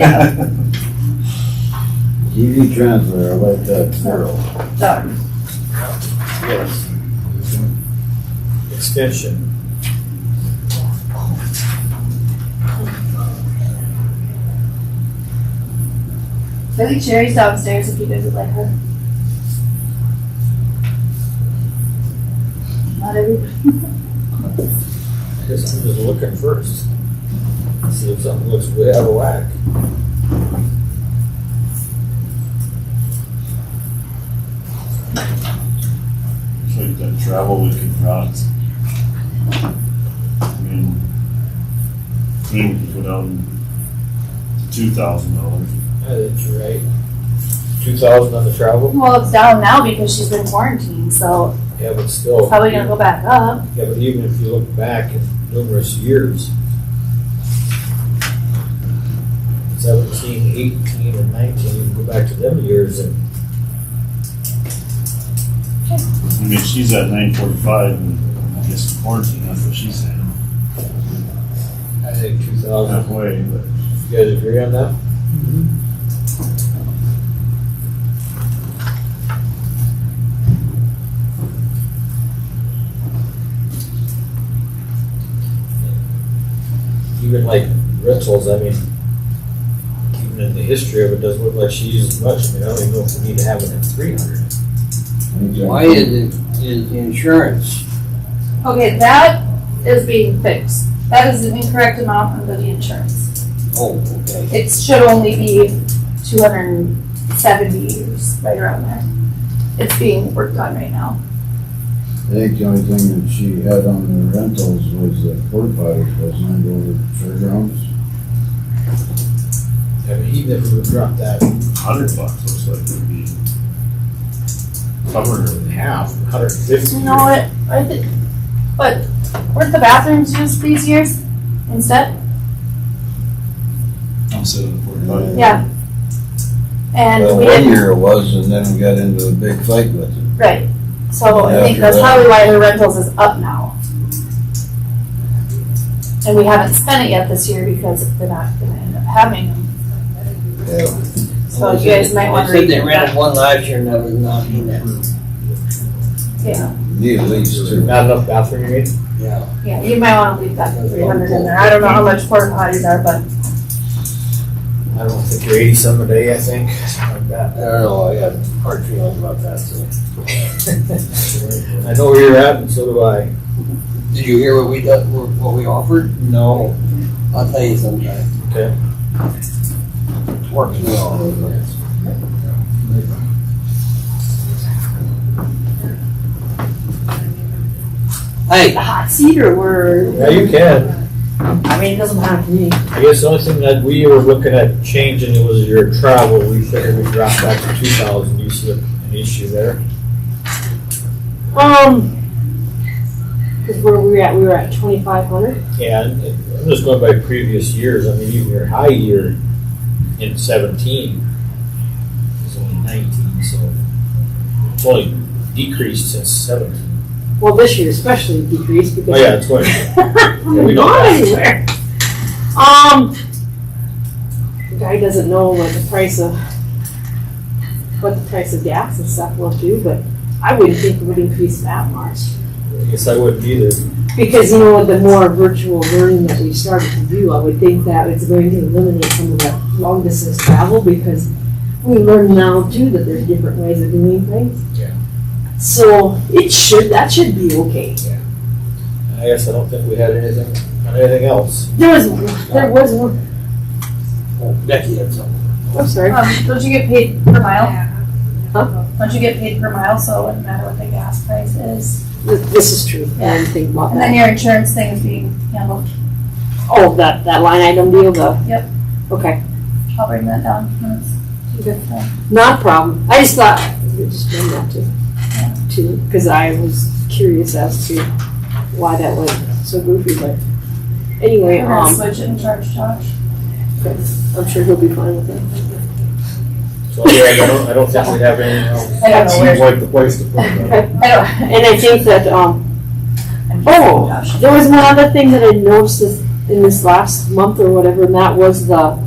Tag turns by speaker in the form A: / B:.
A: Yeah.
B: TV transfer, I like that zero.
A: Done.
C: Yes. Extension.
A: I think Sherry's downstairs if you guys would like her. Not everybody.
C: I guess I'm just looking first. See if something looks way out of whack.
D: It's like that travel we could rot. I mean, I mean, we could go down to two thousand dollars.
C: Yeah, That's right. Two thousand on the travel?
A: Well, it's down now because she's been quarantined, so
C: Yeah, but
A: it's
C: still.
A: probably gonna go back up.
C: Yeah, but even if you look back in numerous years, seventeen, eighteen, and nineteen, you go back to them years and
D: I mean, she's at nine forty-five and I guess quarantine, that's what she's saying.
C: I think two thousand,
D: Halfway, but
C: you guys agree on that? Mm-hmm. Even like rentals, I mean, even in the history of it, doesn't look like she uses much, I mean, I don't even know if we need to have it at three hundred.
E: Why is it, is the insurance,
A: Okay, that is being fixed. That is an incorrect amount under the insurance.
E: oh, okay,
A: It should only be two hundred and seventy years, right around there. It's being worked on right now.
B: I think the only thing that she had on the rentals was the porta potties, wasn't it, over the fairgrounds?
C: I mean, even if we would drop that
D: a hundred bucks looks like it'd be covered.
C: in half, hundred and fifty.
A: You know what, I think, but weren't the bathrooms used these years instead?
D: I'm sitting at
B: Yeah.
A: Yeah. And
B: Well,
A: we
B: one
A: didn't,
B: year it was, and then we got into a big fight with it.
A: right, so I think
B: After
A: that's
B: that.
A: probably why the rentals is up now. And we haven't spent it yet this year because they're not gonna end up having them,
B: Yeah.
A: so you guys might wanna
E: They said they
A: redo
E: rented
A: that,
E: one last year and that was not in that,
A: yeah,
B: Need at least two.
C: Not enough bathroom, you mean?
E: yeah.
A: yeah, you might wanna leave that three hundred in there, I don't know how much porta potties are, but
C: I don't think you're eighty some a day, I think, something like
E: I
C: that.
E: don't know, I got hard feelings about that, so.
C: I know where you're at and so do I.
E: Did you hear what we, done- what we offered?
C: No.
E: I'll tell you sometime.
C: Okay.
E: Works me all over. Hey,
A: the hot seat or we're,
C: Yeah, you can.
A: I mean, it doesn't matter to me.
C: I guess the only thing that we were looking at changing it was your travel. We figured we'd drop back to two thousand. You see an issue there?
F: Um, because where we were at, we were at twenty-five hundred.
C: Yeah, and I'm just going by previous years. I mean, even your high year in seventeen is only nineteen, so it's only decreased since seventeen.
F: Well, this year especially decreased because.
C: Oh, yeah, it's going.
F: I'm
C: we
F: not
C: know
F: going
C: that.
F: anywhere. Um, the guy doesn't know what the price of, what the price of gas and stuff will do, but I wouldn't think it would increase that much.
C: I guess I wouldn't either.
F: Because, you know, the more virtual learning that we started to do, I would think that it's going to eliminate some of that long distance travel because we learn now too that there's different ways of doing things.
C: Yeah.
F: So it should, that should be okay.
C: I guess I don't think we had anything, anything else.
F: There was, there was one,
E: Becky had something.
F: I'm sorry.
A: Um, don't you get paid per mile?
F: Huh?
A: Don't you get paid per mile, so it wouldn't matter what the gas price is?
F: This this is true. I didn't think about
A: And then
F: that.
A: your insurance thing is being handled.
F: Oh, that, that line item deal though?
A: Yep.
F: Okay,
A: I'll bring that down. when it's-
F: not a problem. I just thought, we just bring that to, to, because I was curious as to why that was so goofy, but anyway,
A: We're gonna
F: um,
A: switch it and charge Josh.
F: I'm sure he'll be fine with it.
C: So, yeah, I don't, I don't think we have anything else.
A: I don't know
C: Seems
A: where,
C: like the place to put it.
A: I don't.
F: And I think that, um,
A: I'm just
F: Oh.
A: Josh.
F: there was one other thing that I noticed this- in this last month or whatever, and that was the,